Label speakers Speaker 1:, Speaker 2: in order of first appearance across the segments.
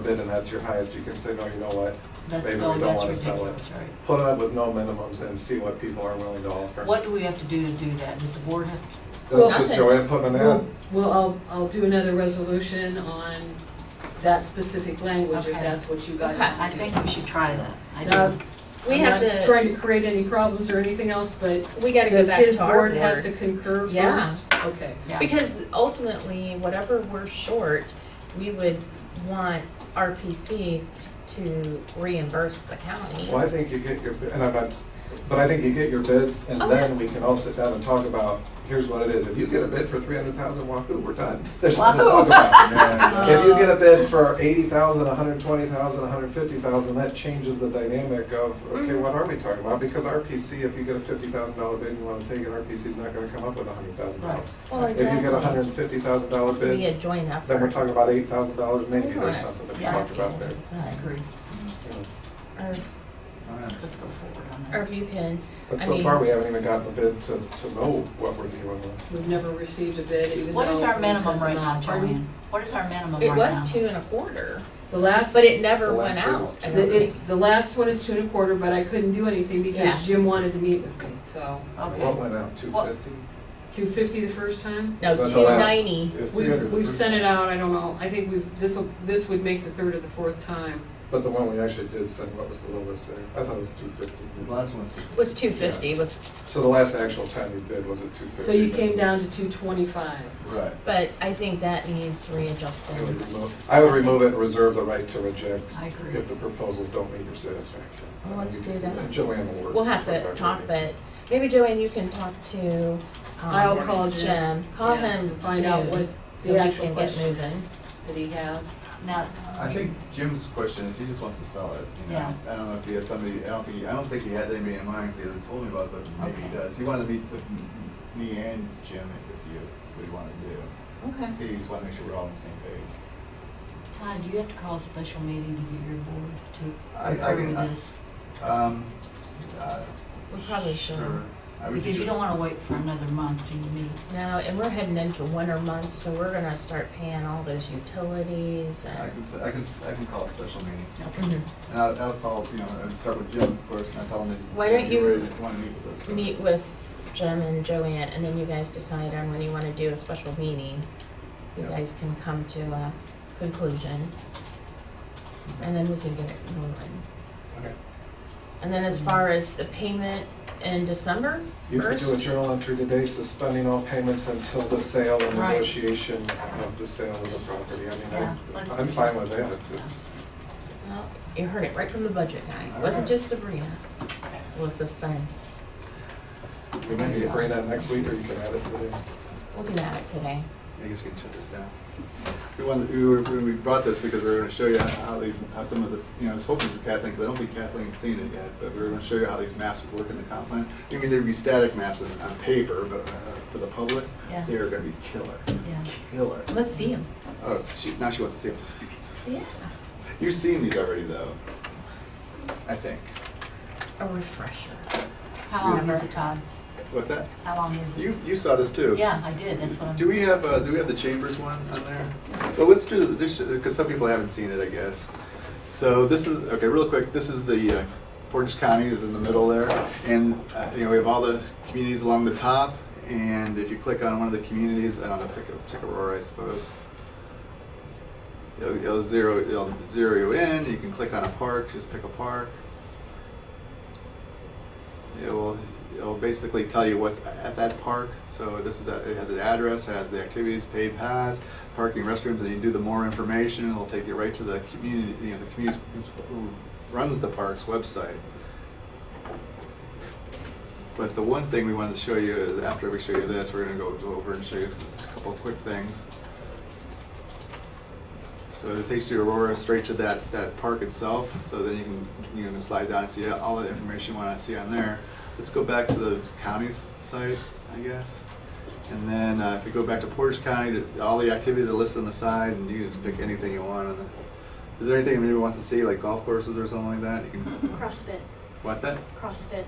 Speaker 1: accepted and that's your highest, you can say, no, you know what?
Speaker 2: That's,
Speaker 1: Maybe we
Speaker 2: no,
Speaker 1: don't
Speaker 2: that's
Speaker 1: wanna sell it.
Speaker 2: ridiculous, right?
Speaker 1: Put it up with no minimums and see what people are willing to offer.
Speaker 2: What do we have to do to do that? Does the board have, to-
Speaker 1: That's just Joanne putting an
Speaker 3: Well,
Speaker 1: ad.
Speaker 3: well, I'll, I'll do another resolution on that specific language, if
Speaker 4: Okay.
Speaker 3: that's what you guys
Speaker 4: Okay, Um,
Speaker 3: want to do.
Speaker 2: I think we should try that. I
Speaker 3: Now,
Speaker 2: do.
Speaker 4: We
Speaker 3: I'm
Speaker 4: have
Speaker 3: not
Speaker 4: to-
Speaker 3: trying to create any problems or anything else, but
Speaker 4: We gotta go
Speaker 3: does
Speaker 4: back
Speaker 3: his
Speaker 4: to our
Speaker 3: board have to
Speaker 4: board.
Speaker 3: concur first?
Speaker 4: Yeah.
Speaker 3: Okay.
Speaker 2: Yeah,
Speaker 4: Because ultimately, whatever we're short, we would want RPC t- to reimburse the county.
Speaker 1: Well, I think you get your, and I'm not, but I think you get your bids and
Speaker 4: Oh,
Speaker 1: then we can all sit down and talk about, here's what it is. If you get a bid for three hundred thousand, wahoo, we're done. There's something to talk about. If you get a bid for eighty thousand, a hundred twenty thousand, a hundred fifty thousand, that changes the dynamic of, okay,
Speaker 4: Mhm.
Speaker 1: what are we talking about? Because RPC, if you get a fifty thousand dollar bid and you wanna take it, RPC's not gonna come up with a hundred thousand
Speaker 2: Right.
Speaker 1: dollars. If you get a hundred and fifty thousand dollar
Speaker 4: It's gonna be
Speaker 1: bid,
Speaker 4: a joint effort.
Speaker 1: then we're talking about eight thousand dollars maybe. There's
Speaker 4: Yes.
Speaker 1: something to be
Speaker 2: Yeah.
Speaker 1: talked about there.
Speaker 2: I agree.
Speaker 1: you know.
Speaker 4: Or-
Speaker 2: Let's go forward on
Speaker 4: Or
Speaker 2: that.
Speaker 4: if you can,
Speaker 1: But
Speaker 4: I
Speaker 1: so far,
Speaker 4: mean-
Speaker 1: we haven't even gotten a bid to, to know what we're dealing with.
Speaker 3: We've never received a bid, even though.
Speaker 2: What is our
Speaker 3: we
Speaker 2: minimum
Speaker 3: sent
Speaker 2: right
Speaker 3: them
Speaker 2: now,
Speaker 3: out. Are we-
Speaker 2: Joanne? What is our minimum right
Speaker 4: it
Speaker 2: now?
Speaker 4: was two and a quarter,
Speaker 3: The last,
Speaker 4: but it never
Speaker 1: The
Speaker 4: went
Speaker 1: last bid
Speaker 4: out.
Speaker 1: was
Speaker 4: I
Speaker 1: two.
Speaker 3: the,
Speaker 4: don't think.
Speaker 3: it's, the last one is two and a quarter, but I couldn't do anything
Speaker 4: Yeah.
Speaker 3: because Jim wanted to meet with me, so.
Speaker 1: What
Speaker 2: Okay,
Speaker 1: went out, two
Speaker 2: What-
Speaker 1: fifty?
Speaker 3: Two fifty the first time?
Speaker 4: No, two ninety.
Speaker 3: We've, we've sent it out, I don't know, I think we've, this'll, this would make the third or the fourth time.
Speaker 1: But the one we actually did send, what was the lowest there? I thought it was two fifty.
Speaker 5: The last one's
Speaker 4: Was two fifty, was,
Speaker 1: So the last actual time you bid was at two fifty.
Speaker 3: So you came down to two twenty-five.
Speaker 5: Right.
Speaker 4: but I think that needs readjusting.
Speaker 1: I would remove it and reserve the right to reject
Speaker 2: I agree.
Speaker 1: if the proposals don't meet your satisfaction.
Speaker 4: Well, let's do that.
Speaker 1: And Joanne will work.
Speaker 4: We'll have to
Speaker 1: work
Speaker 4: talk,
Speaker 1: on it.
Speaker 4: but maybe Joanne, you can talk to, um,
Speaker 3: I'll call Jim.
Speaker 4: Call
Speaker 3: Yeah,
Speaker 4: him
Speaker 3: and Find out
Speaker 4: soon.
Speaker 3: what
Speaker 4: so
Speaker 3: the
Speaker 4: we
Speaker 3: actual
Speaker 4: can get
Speaker 3: question
Speaker 4: moving.
Speaker 3: is that he has.
Speaker 2: Now,
Speaker 5: I think Jim's question is he just wants to sell it, you know?
Speaker 2: Yeah.
Speaker 5: I don't know if he has somebody, I don't think, he- I don't think he has anybody in mind, because he hasn't told me about it, but maybe he
Speaker 2: Okay.
Speaker 5: does. He wanted to meet with m- me and Jim and with you, is what he wanted to do.
Speaker 4: Okay.
Speaker 5: I think he just wanted to make sure we're all on the same page.
Speaker 2: Todd, you have to call a special meeting to get your board
Speaker 5: I- I
Speaker 2: to approve
Speaker 5: can- I-
Speaker 2: this.
Speaker 5: Um, uh,
Speaker 4: We probably should.
Speaker 5: sure. I would
Speaker 2: Because you
Speaker 5: just-
Speaker 2: don't wanna wait for another month to meet.
Speaker 4: No, and we're heading into winter months, so we're gonna start paying all those utilities
Speaker 5: I
Speaker 4: and.
Speaker 5: can, s- I can, s- I can call a special meeting.
Speaker 4: Mhm.
Speaker 5: And I'll, I'll call, you know, and start with Jim, of course, and I tell him that.
Speaker 4: Why don't you
Speaker 5: Want to meet with us. so-
Speaker 4: Meet with Jim and Joanne, and then you guys decide on when you wanna do a special meeting. You
Speaker 1: Yeah.
Speaker 4: guys can come to a conclusion. And then we can get it moving.
Speaker 5: Okay.
Speaker 4: And then as far as the payment in December,
Speaker 1: You could do a
Speaker 4: First?
Speaker 1: journal entry today suspending all payments until the sale and
Speaker 4: Right.
Speaker 1: negotiation of the sale of the property. I
Speaker 2: Yeah,
Speaker 1: mean,
Speaker 2: let's
Speaker 1: I- I'm
Speaker 2: do
Speaker 1: fine
Speaker 2: that.
Speaker 1: with that. if It's,
Speaker 4: well, you heard it right from the budget guy. It
Speaker 5: All
Speaker 4: wasn't
Speaker 5: right.
Speaker 4: just Sabrina. It was this fun.
Speaker 1: we may need to bring that next week or you can add it today.
Speaker 4: We'll get at it today.
Speaker 5: I guess we can shut this down. We wanted, we were, we brought this because we were gonna show you how these, how some of this, you know, I was hoping for Kathleen, because I don't think Kathleen's seen it yet, but we were gonna show you how these maps would work in the comp plan. I mean, there'd be static maps on, on paper, but uh, for the public,
Speaker 4: Yeah.
Speaker 5: they are gonna be killer,
Speaker 2: Yeah.
Speaker 5: killer.
Speaker 4: Let's see him.
Speaker 5: Oh, she, now she wants to see them.
Speaker 4: Yeah.
Speaker 5: You've seen these already, though, I think.
Speaker 4: A refresher.
Speaker 2: How long is
Speaker 4: Remember.
Speaker 2: it, Todd?
Speaker 5: What's that?
Speaker 2: How long is it?
Speaker 5: You, you saw this too.
Speaker 2: Yeah, I did, that's what I'm.
Speaker 5: Do we have, uh, do we have the Chambers one on there? Well, let's do, this, because some people haven't seen it, I guess. So this is, okay, real quick, this is the, uh, Portage County is in the middle there. And, uh, you know, we have all the communities along the top, and if you click on one of the communities, I don't know, pick, a- pick Aurora, I suppose. It'll, it'll zero, it'll zero you in, you can click on a park, just pick a park. It will, it'll basically tell you what's at that park. So this is, a- it has an address, it has the activities, paid paths, parking, restrooms, and you do the more information, it'll take you right to the community, you know, the community who runs the park's website. But the one thing we wanted to show you is, after we show you this, we're gonna go over and show you a couple of quick things. So it takes you to Aurora straight to that, that park itself, so then you can, you can slide down and see all the information you wanna see on there. Let's go back to the county's site, I guess. And then uh, if you go back to Portage County, th- all the activities are listed on the side and you can just pick anything you want. on the- Is there anything anybody wants to see, like golf courses or something like that? You can-
Speaker 6: CrossFit,
Speaker 5: What's that?
Speaker 6: CrossFit.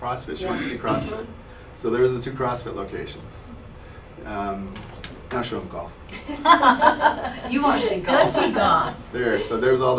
Speaker 5: CrossFit, she wants to see CrossFit. So there's the two CrossFit locations. Um,
Speaker 4: Now show them golf.
Speaker 7: You want to see golf.
Speaker 5: Gussie gone.
Speaker 4: There, so there's all the